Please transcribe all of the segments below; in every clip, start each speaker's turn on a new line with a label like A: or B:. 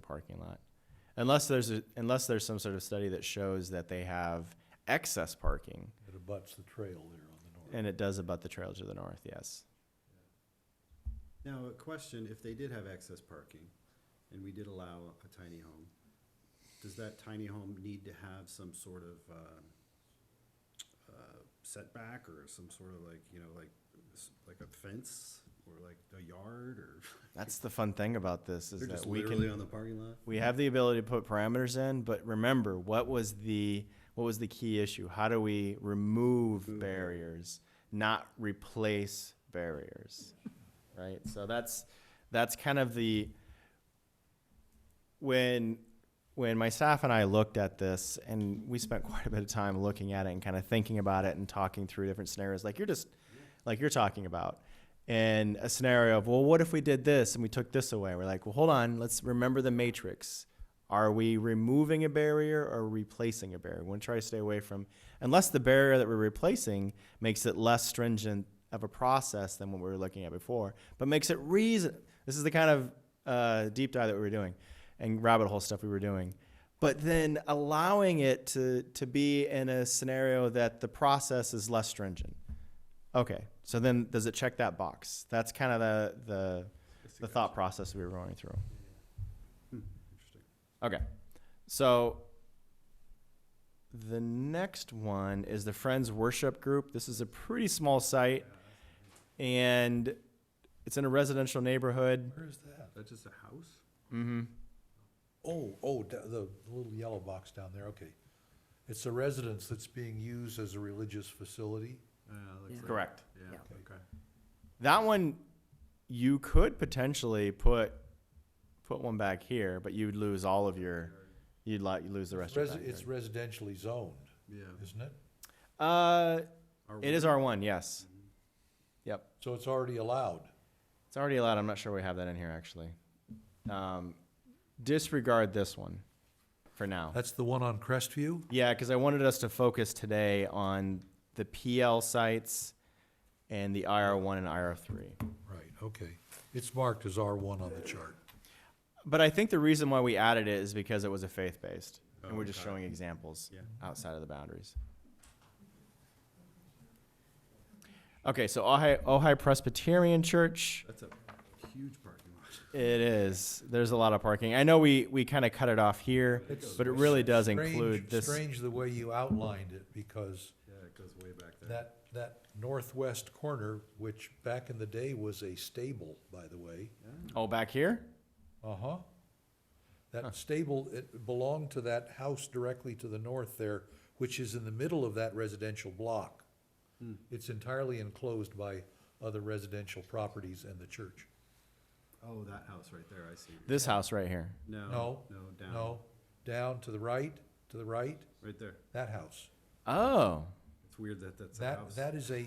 A: parking lot. Unless there's a, unless there's some sort of study that shows that they have excess parking
B: It abuts the trail there on the north.
A: and it does abut the trail to the north, yes.
C: Now, a question, if they did have excess parking, and we did allow a tiny home, does that tiny home need to have some sort of, uh, uh, setback or some sort of like, you know, like, s- like a fence or like a yard or?
A: That's the fun thing about this is
C: They're
A: that
C: just
A: we
C: literally
A: can
C: on the parking lot?
A: we have the ability to put parameters in, but remember what was the what was the key issue? How do we remove
C: Remove
A: barriers, not replace barriers? Right? So that's that's kind of the when when my staff and I looked at this and we spent quite a bit of time looking at it and kind of thinking about it and talking through different scenarios like you're just like you're talking about and a scenario of well what if we did this and we took this away we're like well hold on let's remember the matrix are we removing a barrier or replacing a barrier we want to try to stay away from unless the barrier that we're replacing makes it less stringent of a process than what we were looking at before but makes it reason this is the kind of uh, deep dive that we were doing and rabbit hole stuff we were doing. But then allowing it to, to be in a scenario that the process is less stringent. Okay, so then does it check that box? That's kind of the, the, the thought process we were going through. Hmm,
C: Interesting.
A: Okay, so the next one is the Friends Worship Group. This is a pretty small site and it's in a residential neighborhood.
B: Where is that?
C: That's just a house?
A: Mm-hmm.
B: Oh, oh, da- the little yellow box down there, okay. It's the residence that's being used as a religious facility.
C: Uh, looks
D: Yeah.
C: like-
A: Correct.
C: Yeah,
D: Yeah.
C: okay.
A: That one, you could potentially put put one back here, but you'd lose all of your. You'd like you lose the rest
B: Resi-
A: of
B: It's
A: it.
B: residentially zoned,
C: Yeah.
B: isn't it?
A: Uh,
C: Our
A: it is R one. Yes,
B: So it's already allowed.
A: it's already allowed. I'm not sure we have that in here actually. Um, disregard this one for now.
B: That's the one on Crestview?
A: Yeah, because I wanted us to focus today on the PL sites and the IR one and IR three.
B: Right, okay. It's marked as R1 on the chart.
A: But I think the reason why we added it is because it was a faith based, and
C: Oh,
A: we're just
C: okay.
A: showing examples
C: Yeah.
A: outside of the boundaries. Okay, so Ojai, Ojai Presbyterian Church.
C: That's a huge parking lot.
A: It is. There's a lot of parking. I know we, we kind of cut it off here,
B: It's-
A: but it really does
B: Strange-
A: include this.
B: Strange the way you outlined it, because
C: Yeah, it goes way back there.
B: that, that northwest corner, which back in the day was a stable, by the way.
A: Oh, back here?
B: Uh-huh. That stable, it belonged to that house directly to the north there, which is in the middle of that residential block.
C: Hmm.
B: It's entirely enclosed by other residential properties and the church.
C: Oh, that house right there, I see.
A: This house right here.
C: No,
B: No,
C: no, down.
B: no, down to the right, to the right,
C: Right there.
B: that house.
A: Oh,
C: It's weird that that's a
B: That,
C: house.
B: that is a,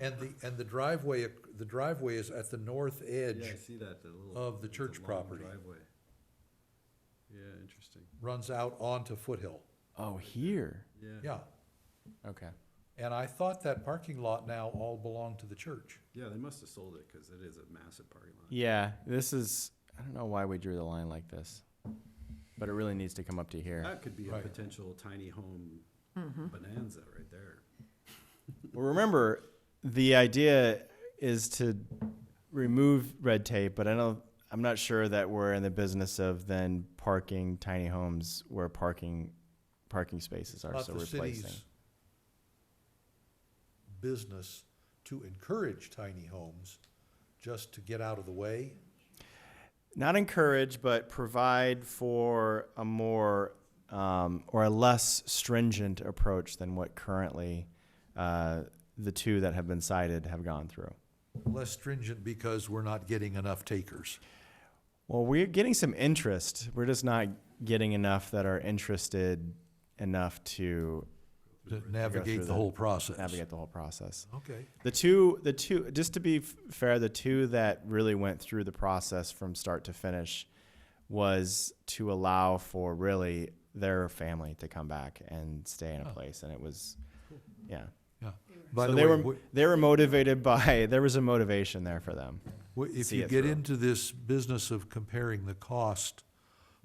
B: and the, and the driveway, ac- the driveway is at the north
C: yeah, I
B: edge,
C: see that. The little
B: of the
C: it's a
B: church
C: long
B: property.
C: Driveway. Yeah, interesting.
B: runs out onto Foothill.
A: oh, here.
C: Yeah.
B: Yeah,
A: Okay.
B: and I thought that parking lot now all belonged to the church.
C: Yeah, they must have sold it because it is a massive parking lot.
A: Yeah, this is. I don't know why we drew the line like this, but it really needs to come up to here.
C: That could be a
B: Right.
C: potential tiny home bonanza right there.
A: Well, remember, the idea is to remove red tape, but I don't. I'm not sure that we're in the business of then parking tiny homes where parking parking spaces are.
B: not
A: so
B: the
A: replacing.
B: city's business to encourage tiny homes just to get out of the way.
A: Not encourage, but provide for a more um, or a less stringent approach than what currently uh, the two that have been cited have gone through.
B: Less stringent because we're not getting enough takers.
A: Well, we're getting some interest. We're just not getting enough that are interested enough to
B: To
A: through
B: navigate
A: the-
B: the whole process.
A: navigate the whole process.
B: Okay,
A: The two, the two, just to be f- fair, the two that really went through the process from start to finish was to allow for really their family to come back and stay in a
B: Oh.
A: place, and it was, yeah.
B: yeah. By
A: so
B: the
A: they
B: way,
A: were
B: w-
A: they were motivated by there was a motivation there for them.
B: w- if
A: see
B: you
A: it
B: get
A: through.
B: into this business of comparing the cost